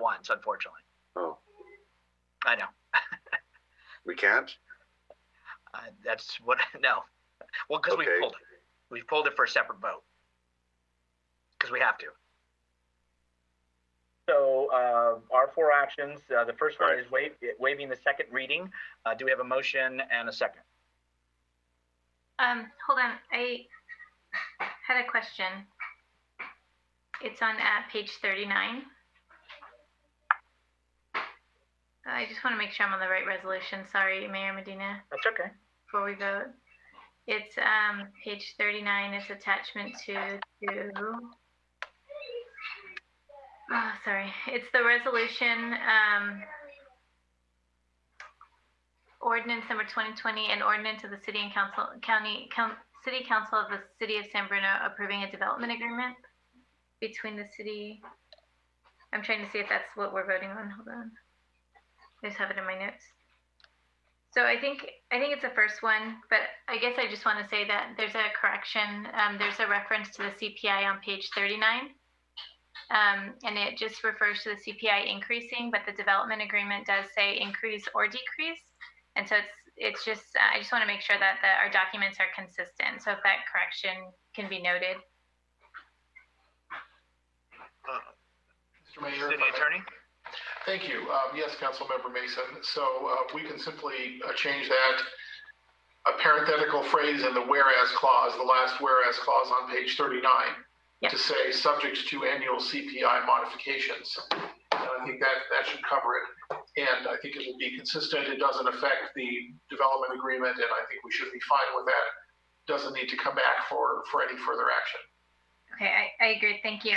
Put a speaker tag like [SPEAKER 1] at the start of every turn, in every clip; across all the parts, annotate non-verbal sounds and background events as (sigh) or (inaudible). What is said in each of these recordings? [SPEAKER 1] mountains, unfortunately.
[SPEAKER 2] Oh,
[SPEAKER 1] I know.
[SPEAKER 2] we can't?
[SPEAKER 1] Uh, that's what, (laughs) no. Well, because
[SPEAKER 2] Okay.
[SPEAKER 1] we pulled it. We pulled it for a separate vote. Because we have to. So uh, our four actions, uh, the first one
[SPEAKER 2] All right.
[SPEAKER 1] is wa- waiving the second reading. Uh, Do we have a motion and a second?
[SPEAKER 3] Um, hold on, I had a question. It's on at page thirty-nine. Uh, I just want to make sure I'm on the right resolution, sorry, Mayor Medina,
[SPEAKER 1] That's okay.
[SPEAKER 3] before we vote. It's, um, page thirty-nine, it's attachment to, to. Oh, sorry, it's the resolution, um, ordinance number 2020 and ordinance of the city and council, county, coun- city council of the city of San Bruno approving a development agreement between the city. I'm trying to see if that's what we're voting on. Hold on. I just have it in my notes. So I think, I think it's the first one, but I guess I just want to say that there's a correction. Um, there's a reference to the CPI on page 39. Um, and it just refers to the CPI increasing, but the development agreement does say increase or decrease. And so it's, it's just, I just want to make sure that the, our documents are consistent. So if that correction can be noted.
[SPEAKER 4] Mr. Mayor.
[SPEAKER 1] City
[SPEAKER 4] if I-
[SPEAKER 1] Attorney?
[SPEAKER 4] Thank you. Um, Yes, Councilmember Mason. So uh, we can simply uh, change that a parenthetical phrase in the whereas clause, the last whereas clause on page 39,
[SPEAKER 3] Yeah.
[SPEAKER 4] to say subject to annual CPI modifications. And I think that, that should cover it. And I think it will be consistent. It doesn't affect the development agreement, and I think we should be fine with that. Doesn't need to come back for, for any further action.
[SPEAKER 3] Okay, I, I agree, thank you.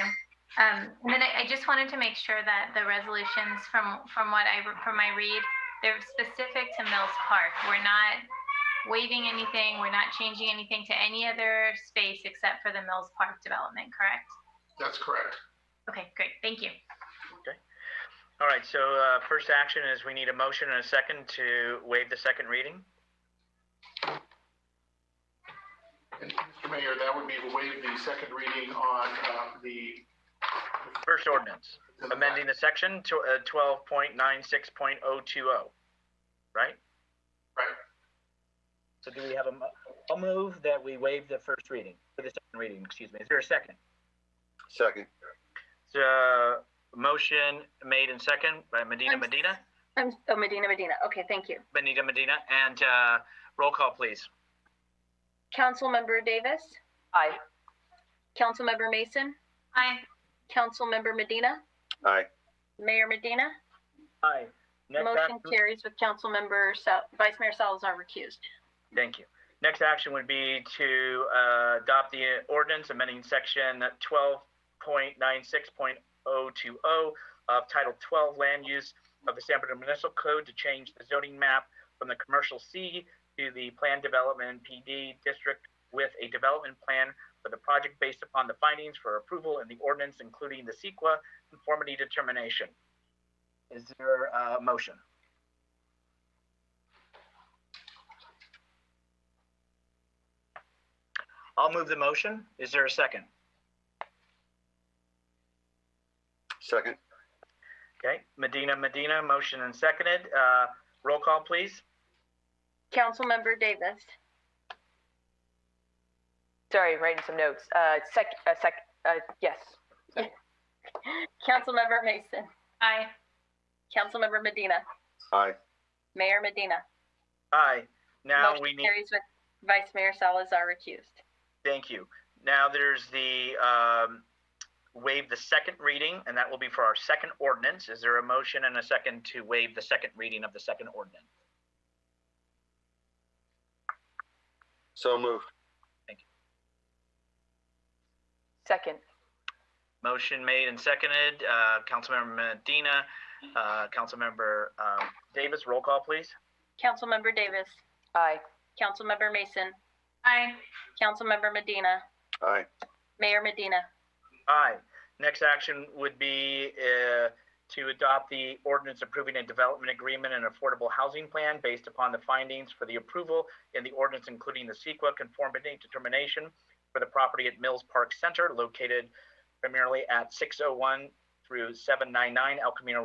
[SPEAKER 3] Um, and then I, I just wanted to make sure that the resolutions from, from what I, re- from my read, they're specific to Mills Park. We're not waiving anything, we're not changing anything to any other space except for the Mills Park development, correct?
[SPEAKER 4] That's correct.
[SPEAKER 3] Okay, great, thank you.
[SPEAKER 1] All right, so uh, first action is we need a motion and a second to waive the second reading.
[SPEAKER 4] And Mr. Mayor, that would be to waive the second reading on um, the
[SPEAKER 1] First ordinance, amending the section to uh, 12.96.020, right?
[SPEAKER 4] Right.
[SPEAKER 1] So do we have a, mo- a move that we waive the first reading, for the second reading, excuse me. Is there a second?
[SPEAKER 2] Second.
[SPEAKER 1] So, motion made and second by Medina
[SPEAKER 5] I'm-
[SPEAKER 1] Medina,
[SPEAKER 5] I'm, oh, Medina, Medina. Okay, thank you.
[SPEAKER 1] Benita Medina, and uh, roll call, please.
[SPEAKER 5] Councilmember Davis?
[SPEAKER 6] Aye.
[SPEAKER 5] Councilmember Mason?
[SPEAKER 3] Aye.
[SPEAKER 5] Councilmember Medina?
[SPEAKER 2] Aye.
[SPEAKER 5] Mayor Medina?
[SPEAKER 1] Aye. Next
[SPEAKER 5] Motion
[SPEAKER 1] action-
[SPEAKER 5] carries with Councilmember, Sal- Vice Mayor Salazar recused.
[SPEAKER 1] Thank you. Next action would be to uh, adopt the ordinance amending section 12.96.020 of Title 12 Land Use of the San Bernardino Municipal Code to change the zoning map from the commercial C to the planned development PD district with a development plan for the project based upon the findings for approval in the ordinance, including the CEQA conformity determination. Is there a motion? I'll move the motion. Is there a second?
[SPEAKER 2] Second.
[SPEAKER 1] Okay, Medina, Medina, motion and seconded. Uh, roll call, please.
[SPEAKER 5] Councilmember Davis?
[SPEAKER 6] Sorry, I'm writing some notes. Uh, sec, uh, sec, uh, yes.
[SPEAKER 5] Councilmember Mason?
[SPEAKER 3] Aye.
[SPEAKER 5] Councilmember Medina?
[SPEAKER 2] Aye.
[SPEAKER 5] Mayor Medina?
[SPEAKER 1] Aye. Now
[SPEAKER 5] Motion
[SPEAKER 1] we need,
[SPEAKER 5] Carries with Vice Mayor Salazar recused.
[SPEAKER 1] thank you. Now there's the, um, waive the second reading, and that will be for our second ordinance. Is there a motion and a second to waive the second reading of the second ordinance?
[SPEAKER 2] So moved.
[SPEAKER 6] Second,
[SPEAKER 1] Motion made and seconded. Uh, Councilmember Medina, uh, Councilmember, um, Davis, roll call, please.
[SPEAKER 5] Councilmember Davis?
[SPEAKER 6] aye.
[SPEAKER 5] Councilmember Mason?
[SPEAKER 3] Aye.
[SPEAKER 5] Councilmember Medina?
[SPEAKER 2] Aye.
[SPEAKER 5] Mayor Medina?
[SPEAKER 1] Aye. Next action would be uh, to adopt the ordinance approving a development agreement and affordable housing plan based upon the findings for the approval in the ordinance, including the CEQA conformity determination for the property at Mills oh Park Center located primarily at 601 through 799 El Camino